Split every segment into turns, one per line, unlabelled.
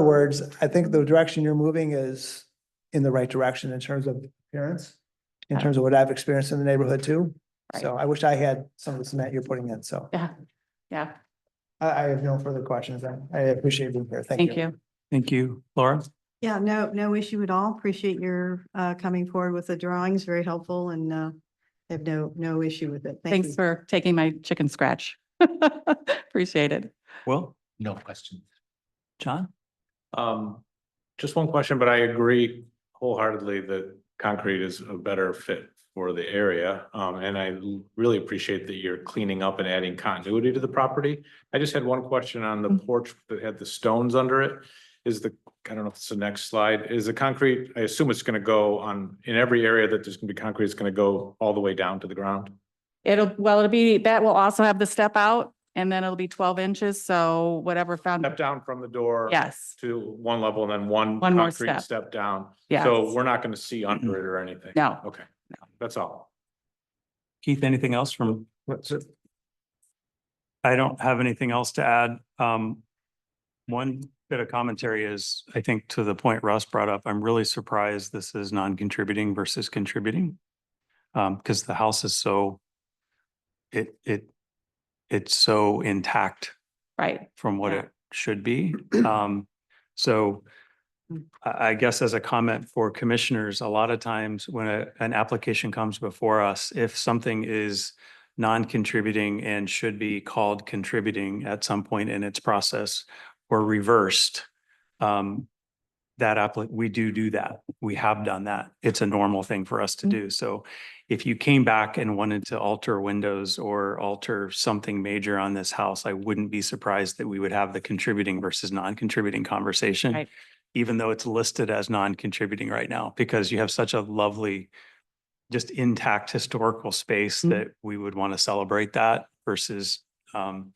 other words, I think the direction you're moving is in the right direction in terms of appearance, in terms of what I've experienced in the neighborhood too. So I wish I had some of the cement you're putting in, so
Yeah, yeah,
I, I have no further questions. I- I appreciate being here. Thank you.
thank you.
Thank you. Laura?
Yeah, no, no issue at all. Appreciate your uh, coming forward with the drawings. Very helpful and uh, have no, no issue with it. Thank
Thanks
you.
for taking my chicken scratch. Appreciate it.
Will?
No question.
John?
Um, just one question, but I agree wholeheartedly that concrete is a better fit for the area. Um, and I l- really appreciate that you're cleaning up and adding continuity to the property. I just had one question on the porch that had the stones under it. Is the, I don't know if it's the next slide, is the concrete, I assume it's gonna go on, in every area that there's gonna be concrete, it's gonna go all the way down to the ground?
It'll, well, it'll be, that will also have the step out and then it'll be twelve inches, so whatever found,
Step down from the door.
yes,
To one level and then one.
One more
concrete
step.
Step down.
yes.
So we're not gonna see under it or anything?
No.
Okay, that's all.
Keith, anything else from? I don't have anything else to add. Um, one bit of commentary is, I think to the point Russ brought up, I'm really surprised this is non-contributing versus contributing. Um, because the house is so, it, it, it's so intact
Right,
from what
Yeah.
it should be. Um, so I, I guess as a comment for commissioners, a lot of times when a, an application comes before us, if something is non-contributing and should be called contributing at some point in its process or reversed, um, that appli, we do do that. We have done that. It's a normal thing for us to
Mm-hmm.
do. So if you came back and wanted to alter windows or alter something major on this house, I wouldn't be surprised that we would have the contributing versus non-contributing conversation.
Right.
Even though it's listed as non-contributing right now, because you have such a lovely, just intact historical space
Mhm.
that we would want to celebrate that versus um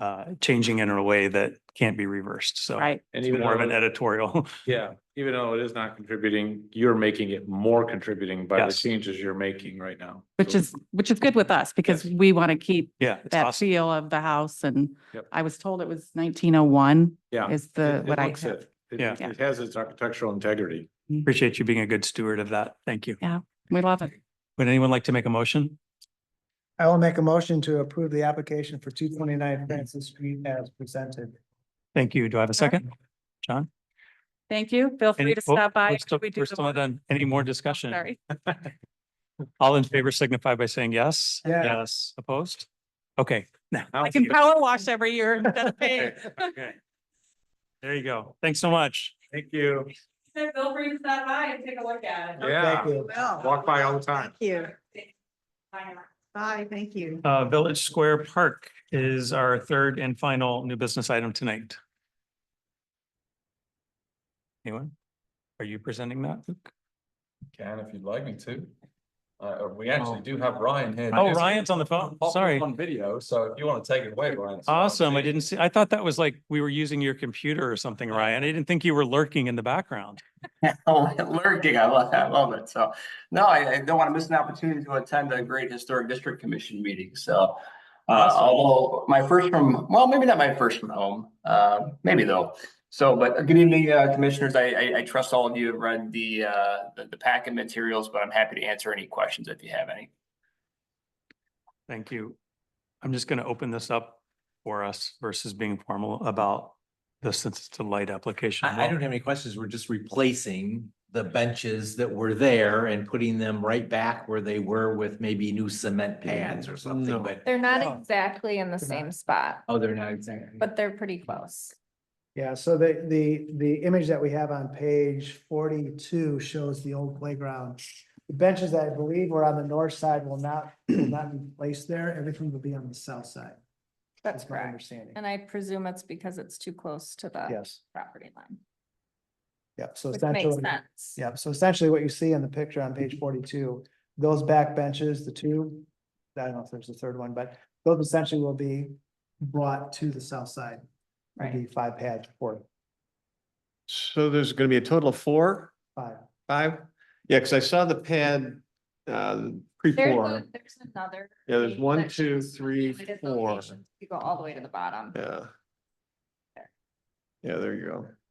uh changing in a way that can't be reversed. So
right.
And
it's
even
more of an
though,
editorial.
yeah, even though it is not contributing, you're making it more contributing by the
Yes.
changes you're making right now.
Which
So-
is, which is good with us because
Yes.
we want to keep
Yeah. it's
that
awesome.
feel of the house and
Yep.
I was told it was nineteen oh one
Yeah.
is
it-
the,
it
what I
looks
have.
it. It-
Yeah.
It has its architectural integrity.
Appreciate you being a good steward of that. Thank you.
We love it.
Would anyone like to make a motion?
I will make a motion to approve the application for two twenty-nine Francis Street as presented.
Thank you. Do I have a second? John?
Thank you. Feel free
Any-
to
oh,
stop by.
we're still-
after we do
We're
the
still
vote.
not done. Any more discussion?
Sorry.
All in favor signify by saying yes.
Yeah.
Yes. Opposed? Okay.
I can power wash every year instead of paying.
Okay. There you go. Thanks so much.
Thank you.
Feel free to stop by and take a look at
it. Yeah.
Thank you.
Walk by all the time.
Thank you. Bye, thank you.
Uh, Village Square Park is our third and final new business item tonight. Anyone? Are you presenting that? Luke?
Can if you'd like me to. Uh, we
Oh.
actually do have Ryan here.
Oh,
Yes.
Ryan's on the phone.
Popped up
Sorry.
On video, so if you want to take it away, Ryan. it's fine.
Awesome. I didn't see, I thought that was like we were using your computer or something, Ryan. I didn't think you were lurking in the background.
Oh, Lurking, I love, I love it. So, no, I, I don't want to miss an opportunity to attend a great historic district commission meeting. So, uh,
Awesome.
although my first from, well, maybe not my first from home, uh, maybe though. So, but uh, good evening, uh, commissioners. I, I, I trust all of you have read the, uh, the, the packet materials, but I'm happy to answer any questions if you have any.
Thank you. I'm just going to open this up for us versus being formal about the Census to Light application.
I, I don't have any questions. We're just replacing the benches that were there and putting them right back where they were with maybe new cement pads or
No.
something, but.
They're
Yeah.
not exactly in the
They're
same spot,
Oh, they're not exactly.
but they're pretty close.
Yeah, so the, the, the image that we have on page forty-two shows the old playground. The benches that I believe were on the north side will not, will not be placed there. Everything will be on the south side. That's my understanding.
And I presume it's because it's too close to the
Yes,
property line,
yep, so
which makes
essentially,
sense.
yep, so essentially what you see in the picture on page forty-two, those back benches, the two, I don't know if there's a third one, but those essentially will be brought to the south side.
Right.
Maybe five pads, four,
So there's going to be a total of four,
five.
five? Yeah, because I saw the pad, uh,
There's,
pre-four.
a- there's another.
Yeah, there's
page
one,
that
two,
shows
three,
related
four.
locations. You go all the way to the bottom.
Yeah. Yeah, there you go.